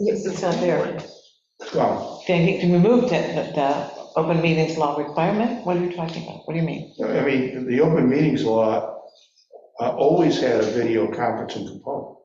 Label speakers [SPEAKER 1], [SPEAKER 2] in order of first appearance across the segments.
[SPEAKER 1] Yes, it's not there.
[SPEAKER 2] Well,
[SPEAKER 1] They removed it, the, the open meetings law requirement? What are you talking about? What do you mean?
[SPEAKER 2] I mean, the open meetings law uh, always had a video conferencing component.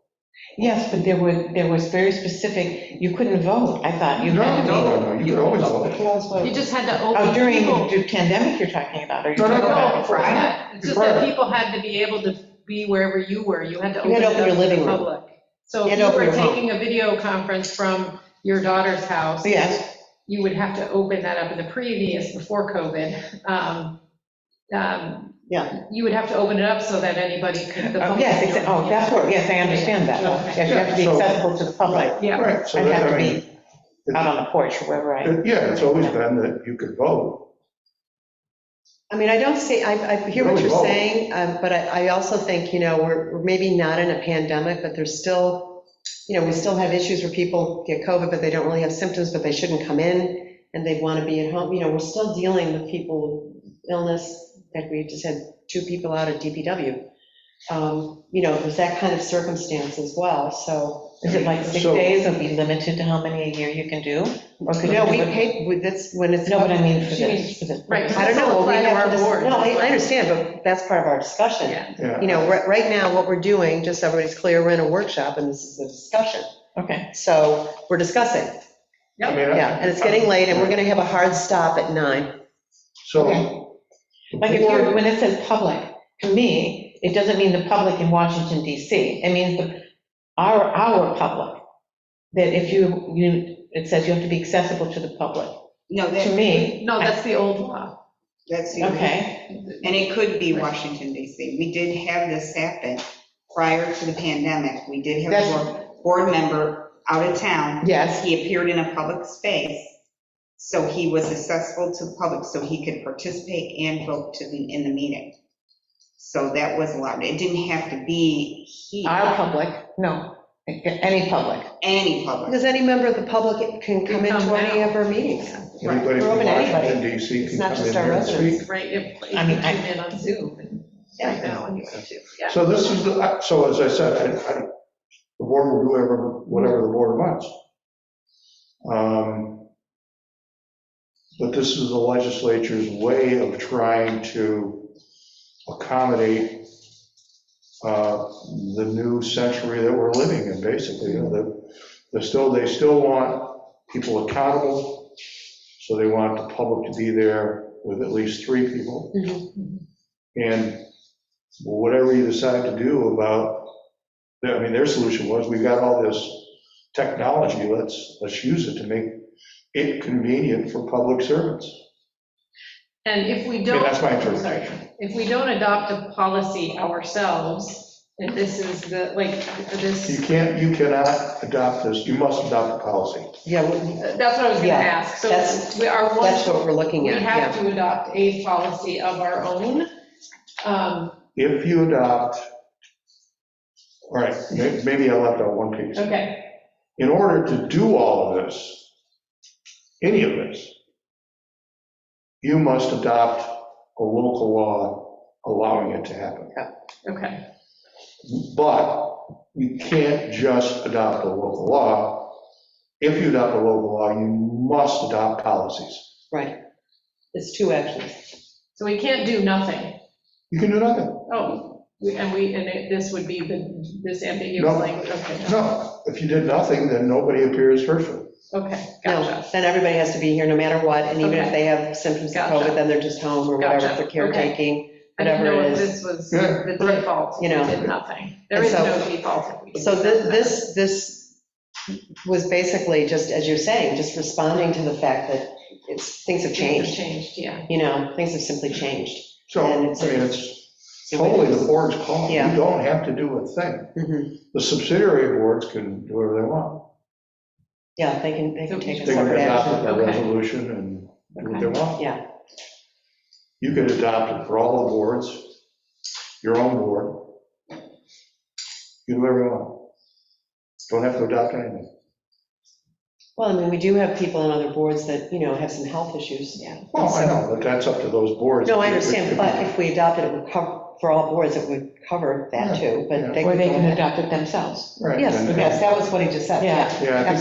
[SPEAKER 1] Yes, but there were, there was very specific, you couldn't vote, I thought. You had
[SPEAKER 2] No, no,
[SPEAKER 1] to
[SPEAKER 2] no,
[SPEAKER 1] be-
[SPEAKER 2] no, you could always
[SPEAKER 1] You
[SPEAKER 2] vote.
[SPEAKER 1] could always vote.
[SPEAKER 3] You just had to
[SPEAKER 1] Oh,
[SPEAKER 3] open
[SPEAKER 1] during
[SPEAKER 3] people.
[SPEAKER 1] the pandemic you're talking about, are you
[SPEAKER 2] No, no,
[SPEAKER 1] talking
[SPEAKER 2] no.
[SPEAKER 1] about?
[SPEAKER 3] No,
[SPEAKER 1] before that?
[SPEAKER 3] yeah, it's just that people had to be able to be wherever you were, you had to
[SPEAKER 1] You had
[SPEAKER 3] open it
[SPEAKER 1] to open
[SPEAKER 3] up
[SPEAKER 1] your
[SPEAKER 3] to
[SPEAKER 1] living
[SPEAKER 3] the
[SPEAKER 1] room.
[SPEAKER 3] public. So
[SPEAKER 1] You
[SPEAKER 3] if
[SPEAKER 1] had
[SPEAKER 3] you
[SPEAKER 1] to open
[SPEAKER 3] were
[SPEAKER 1] your home.
[SPEAKER 3] taking a video conference from your daughter's house,
[SPEAKER 1] Yes,
[SPEAKER 3] you would have to open that up in the previous, before COVID. um, um,
[SPEAKER 1] Yeah.
[SPEAKER 3] You would have to open it up so that anybody could. the public
[SPEAKER 1] yes,
[SPEAKER 3] could
[SPEAKER 1] exa-
[SPEAKER 3] join.
[SPEAKER 1] oh, that's what, yes, I understand that. Yes, you have to be accessible to the public.
[SPEAKER 3] Yeah.
[SPEAKER 2] Right, so
[SPEAKER 1] I'd
[SPEAKER 2] that,
[SPEAKER 1] have
[SPEAKER 2] I
[SPEAKER 1] to
[SPEAKER 2] mean,
[SPEAKER 1] be out on the porch or wherever I.
[SPEAKER 2] yeah, it's always been that you could vote.
[SPEAKER 4] I mean, I don't see, I, I hear what
[SPEAKER 2] Really
[SPEAKER 4] you're
[SPEAKER 2] low.
[SPEAKER 4] saying, um, but I, I also think, you know, we're, we're maybe not in a pandemic, but there's still, you know, we still have issues where people get COVID, but they don't really have symptoms, but they shouldn't come in, and they want to be at home, you know, we're still dealing with people, with illness, that we just had two people out at DPW. Um, You know, there's that kind of circumstance as well, so,
[SPEAKER 1] Is it like six
[SPEAKER 2] So-
[SPEAKER 1] days, it'll be limited to how many a year you can do? Or could you
[SPEAKER 4] no, we
[SPEAKER 1] do it-
[SPEAKER 4] paid, we- that's when it's.
[SPEAKER 1] No, but I mean for
[SPEAKER 3] She
[SPEAKER 1] this, for this.
[SPEAKER 3] Right.
[SPEAKER 4] I don't know, well, we
[SPEAKER 3] Apply to
[SPEAKER 4] have
[SPEAKER 3] our
[SPEAKER 4] to, dis-
[SPEAKER 3] board.
[SPEAKER 4] no, I, I understand, but that's part of our discussion.
[SPEAKER 3] Yeah.
[SPEAKER 2] Yeah.
[SPEAKER 4] You know, right, right now, what we're doing, just so everybody's clear, we're in a workshop and this is a discussion.
[SPEAKER 1] Okay,
[SPEAKER 4] So we're discussing,
[SPEAKER 2] I mean, I-
[SPEAKER 4] yeah, and it's getting late and we're gonna have a hard stop at nine.
[SPEAKER 2] So. the
[SPEAKER 1] like if you're,
[SPEAKER 2] board-
[SPEAKER 1] when it says public, to me, it doesn't mean the public in Washington DC. It means the, our, our public. That if you, you, it says you have to be accessible to the public.
[SPEAKER 5] No,
[SPEAKER 1] To
[SPEAKER 5] that,
[SPEAKER 1] me,
[SPEAKER 3] No, that's the old law.
[SPEAKER 5] that's, the-
[SPEAKER 1] okay,
[SPEAKER 5] and it could be Washington DC. We did have this happen prior to the pandemic. We did have
[SPEAKER 1] That's-
[SPEAKER 5] a board- board member out of town.
[SPEAKER 4] Yes.
[SPEAKER 5] He appeared in a public space, so he was accessible to the public, so he could participate and vote to the, in the meeting. So that was allowed. It didn't have to be he,
[SPEAKER 1] our public, no, any public.
[SPEAKER 5] any public.
[SPEAKER 4] Because any member of the public can come into any of our meetings.
[SPEAKER 2] Anybody
[SPEAKER 4] We're
[SPEAKER 2] from
[SPEAKER 4] open to anybody.
[SPEAKER 2] Washington DC
[SPEAKER 4] It's
[SPEAKER 2] can
[SPEAKER 4] not
[SPEAKER 2] come in
[SPEAKER 4] just our
[SPEAKER 2] here and speak.
[SPEAKER 4] residents.
[SPEAKER 3] Right, if if you
[SPEAKER 1] I mean, I-
[SPEAKER 3] tune in on Zoom and right now, when you want to, yeah.
[SPEAKER 2] So this is, the I- so as I said, I- I- the board will do whatever, whatever the board wants. Um, But this is the legislature's way of trying to accommodate uh, the new century that we're living in, basically. You know, the- They're still, they still want people accountable, so they want the public to be there with at least three people.
[SPEAKER 1] Mm-hmm.
[SPEAKER 2] And whatever you decide to do about, I mean, their solution was, we've got all this technology, let's, let's use it to make it convenient for public servants.
[SPEAKER 3] And if we
[SPEAKER 2] I
[SPEAKER 3] don't.
[SPEAKER 2] mean, that's my
[SPEAKER 3] I'm sorry.
[SPEAKER 2] interpretation.
[SPEAKER 3] if we don't adopt a policy ourselves, if this is the, like,
[SPEAKER 2] You
[SPEAKER 3] this,
[SPEAKER 2] can't, you cannot adopt this, you must adopt the policy.
[SPEAKER 4] Yeah, we-
[SPEAKER 3] that's what I was gonna
[SPEAKER 4] Yeah,
[SPEAKER 3] ask.
[SPEAKER 4] that's-
[SPEAKER 3] So we are one,
[SPEAKER 4] that's what we're looking
[SPEAKER 3] we
[SPEAKER 4] at,
[SPEAKER 3] have
[SPEAKER 4] yeah.
[SPEAKER 3] to adopt a policy of our own. Um,
[SPEAKER 2] If you adopt, all right, may- maybe I left out one piece.
[SPEAKER 3] Okay,
[SPEAKER 2] In order to do all of this, any of this, you must adopt a local law allowing it to happen.
[SPEAKER 3] okay,
[SPEAKER 2] But you can't just adopt a local law. If you adopt a local law, you must adopt policies.
[SPEAKER 4] Right. It's two actions.
[SPEAKER 3] so we can't do nothing.
[SPEAKER 2] You can do nothing.
[SPEAKER 3] Oh, we- and we, and it- this would be the, this ambiguous
[SPEAKER 2] No.
[SPEAKER 3] language, okay,
[SPEAKER 2] No, if you did nothing, then nobody appears hurtful.
[SPEAKER 3] okay,
[SPEAKER 4] No,
[SPEAKER 3] gotcha.
[SPEAKER 4] then everybody has to be here no matter what, and even
[SPEAKER 3] Okay.
[SPEAKER 4] if they have symptoms of
[SPEAKER 3] Gotcha.
[SPEAKER 4] COVID, then they're just home or whatever, if
[SPEAKER 3] Gotcha,
[SPEAKER 4] they're
[SPEAKER 3] okay.
[SPEAKER 4] caretaking.
[SPEAKER 3] I didn't
[SPEAKER 4] whatever
[SPEAKER 3] know
[SPEAKER 4] it is.
[SPEAKER 3] if this was
[SPEAKER 2] Yeah,
[SPEAKER 3] the
[SPEAKER 2] right.
[SPEAKER 3] default, we
[SPEAKER 4] You know.
[SPEAKER 3] did nothing. There
[SPEAKER 4] And
[SPEAKER 3] is
[SPEAKER 4] so-
[SPEAKER 3] no default. if we do
[SPEAKER 4] So thi-
[SPEAKER 3] nothing.
[SPEAKER 4] this, this was basically just, as you're saying, just responding to the fact that it's, things have
[SPEAKER 3] It's
[SPEAKER 4] changed,
[SPEAKER 3] Changed, yeah.
[SPEAKER 4] you know, things have simply changed.
[SPEAKER 2] So, I mean,
[SPEAKER 4] And it's-
[SPEAKER 2] it's totally the board's call. You
[SPEAKER 4] Yeah.
[SPEAKER 2] don't have to do a thing.
[SPEAKER 1] Mm-hmm.
[SPEAKER 4] Mhm.
[SPEAKER 2] The subsidiary boards can do whatever they want.
[SPEAKER 4] Yeah, they can, they can take a
[SPEAKER 2] They can
[SPEAKER 4] separate
[SPEAKER 2] adopt
[SPEAKER 4] action.
[SPEAKER 2] a
[SPEAKER 3] Okay.
[SPEAKER 2] resolution and do what they want.
[SPEAKER 4] Yeah.
[SPEAKER 2] You could adopt it for all the boards, your own board. You do whatever you want. Don't have to adopt anything.
[SPEAKER 4] Well, I mean, we do have people on other boards that, you know, have some health issues.
[SPEAKER 3] Yeah.
[SPEAKER 2] Well, Oh, I know, but that's up to those boards.
[SPEAKER 4] No, I understand, but if we adopted it, it would cover, for all boards, it would cover that too, but they
[SPEAKER 1] Or
[SPEAKER 4] could
[SPEAKER 1] they
[SPEAKER 4] go
[SPEAKER 1] can
[SPEAKER 4] ahead.
[SPEAKER 1] adopt it themselves.
[SPEAKER 2] Right,
[SPEAKER 4] Yes,
[SPEAKER 2] and-
[SPEAKER 4] yes, that was what he just said,
[SPEAKER 1] Yeah.
[SPEAKER 4] yeah.
[SPEAKER 2] Yeah, I think